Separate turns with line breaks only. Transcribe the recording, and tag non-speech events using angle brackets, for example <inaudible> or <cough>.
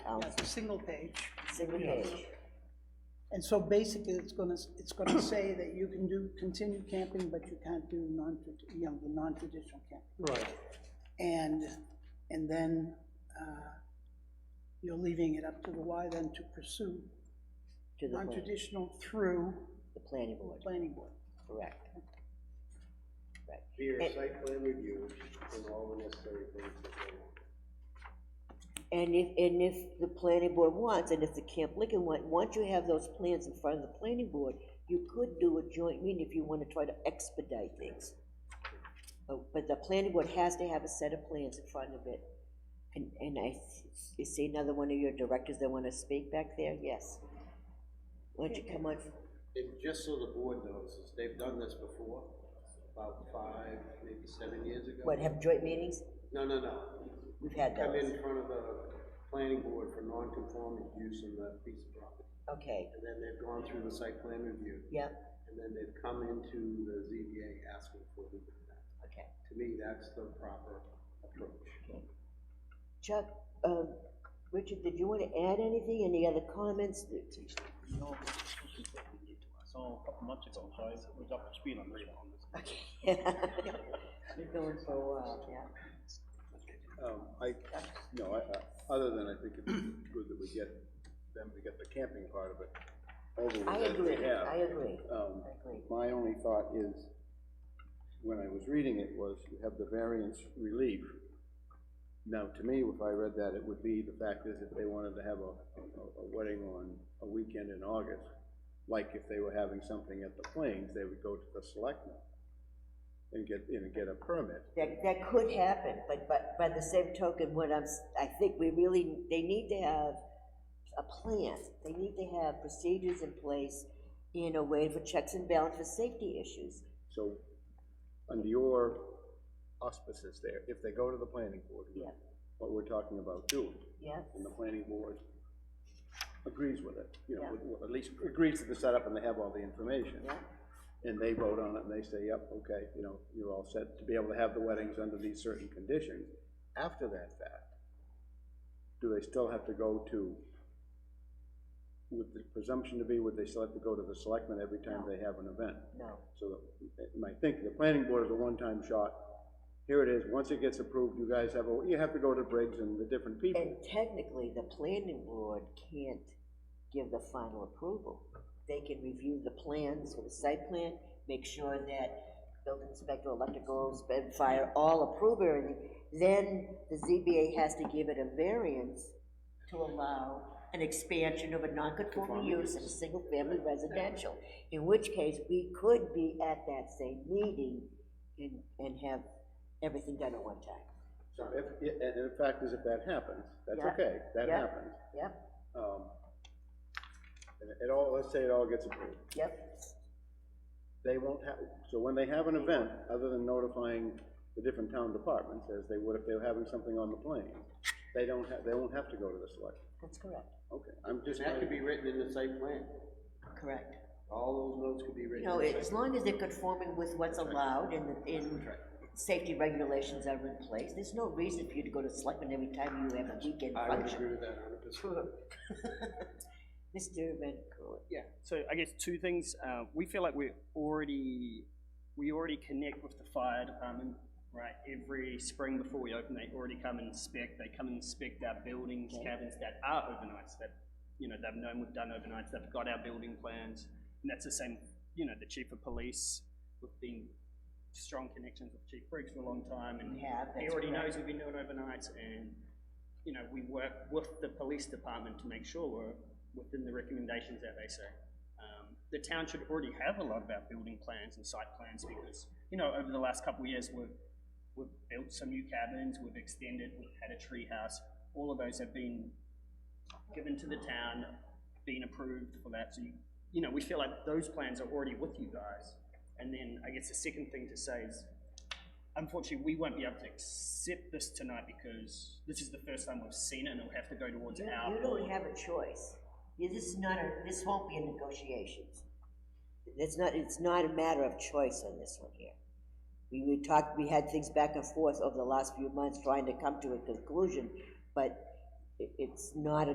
single page.
single
Yeah.
page.
And so basically, it's gonna, it's gonna <coughs> say that you can do, continue camping, but you can't do non, you know, the non-traditional camping.
Right,
And, and then, uh, you're leaving it up to the Y then to pursue
To the, plan-
non-traditional through
the planning board,
planning board.
correct. Right,
Via
It-
site plan review and all the necessary things that they want.
and if, and if the planning board wants, and if the Camp Lincoln want, once you have those plans in front of the planning board, you could do a joint meeting if you wanna try to expedite things. Oh, But the planning board has to have a set of plans in front of it. And, and I, s- you see another one of your directors that wanna speak back there, yes? Why don't you come on,
And just so the board knows, is they've done this before, about five, maybe seven years ago.
what, have joint meetings?
No, no, no.
We've had
Come
those,
in front of the planning board for non-conforming use of that piece of property.
okay,
And then they've gone through the site plan review,
yep,
and then they've come into the ZBA asking for the impact.
okay.
To me, that's the proper approach.
Chuck, um, Richard, did you want to add anything, any other comments? <laughs>
No, this is something that we did to us all a couple months ago, so I was up to speed on this one.
You're going for a while, yeah.
Um, I, no, I, I, other than I think it's good that we get them to get the camping part of it over
I
with as we
agree,
have.
I agree, I
Um,
agree.
my only thought is, when I was reading it, was you have the variance relief. Now, to me, if I read that, it would be, the fact is, if they wanted to have a, a, a wedding on a weekend in August, like if they were having something at the Plains, they would go to the selectmen and get, and get a permit.
That, that could happen, but, but by the same token, what I'm, s- I think we really, they need to have a plan. They need to have procedures in place, you know, way for checks and balances, for safety issues.
So, under your auspices there, if they go to the planning board,
Yeah,
what we're talking about doing,
yeah,
and the planning board agrees with it, you know,
Yeah.
with- with- at least agrees to the setup and they have all the information,
yeah,
and they vote on it and they say, yep, okay, you know, you're all set to be able to have the weddings under these certain conditions. After that fact, do they still have to go to, with the presumption to be, would they still have to go to the selectmen every time they have an event?
no.
So the, my thinking, the planning board is a one-time shot. Here it is, once it gets approved, you guys have, a you have to go to Briggs and the different
And
people.
technically, the planning board can't give the final approval. They can review the plans for the site plan, make sure that building inspector, electricals, and fire all approve everything. Then the ZBA has to give it a variance to allow an expansion of a non-conforming use in a single-family residential. In which case, we could be at that same meeting and, and have everything done at one time.
So if, and and the fact is, if that happens, that's
Yeah.
okay, that
Yeah.
happens.
Yep,
Um, and It all, let's say it all gets approved.
yep.
They won't have, so when they have an event, other than notifying the different town departments, as they would if they were having something on the plane, they don't have, they won't have to go to the select.
That's correct.
Okay, I'm
And
just.
that could be written in the site plan.
Correct.
All those notes could be
You
written.
know,
in the
as long as they're conforming with what's allowed and, the- in, safety regulations are in place, there's no reason for you to go to selectmen every time you have a weekend
I would
function.
agree with that hundred percent.
Mr. Van Kulen,
Yeah, so I guess two things, uh, we feel like we're already, we already connect with the fire department, right? Every spring before we open, they already come and inspect, they come and inspect our buildings,
Okay.
cabins that are overnights, that, you know, they've known we've done overnights, they've got our building plans, and that's the same, you know, the chief of police, we've been strong connections with Chief Briggs for a long time, and
we have,
He
that's
already
correct.
knows we've been doing overnights and, you know, we work with the police department to make sure we're within the recommendations that they say. Um, the town should already have a lot of our building plans and site plans because, you know, over the last couple of years, we've, we've built some new cabins, we've extended, we've had a tree house. All of those have been given to the town, been approved for that, so you, you know, we feel like those plans are already with you guys. And then I guess the second thing to say is, unfortunately, we won't be able to accept this tonight because this is the first time we've seen it and it'll have to go towards
You
our
you
board.
don't have a choice. You- This is not a, this won't be a negotiations. It's not, it's not a matter of choice on this one here. We, we talked, we had things back and forth over the last few months trying to come to a conclusion, but it, it's not a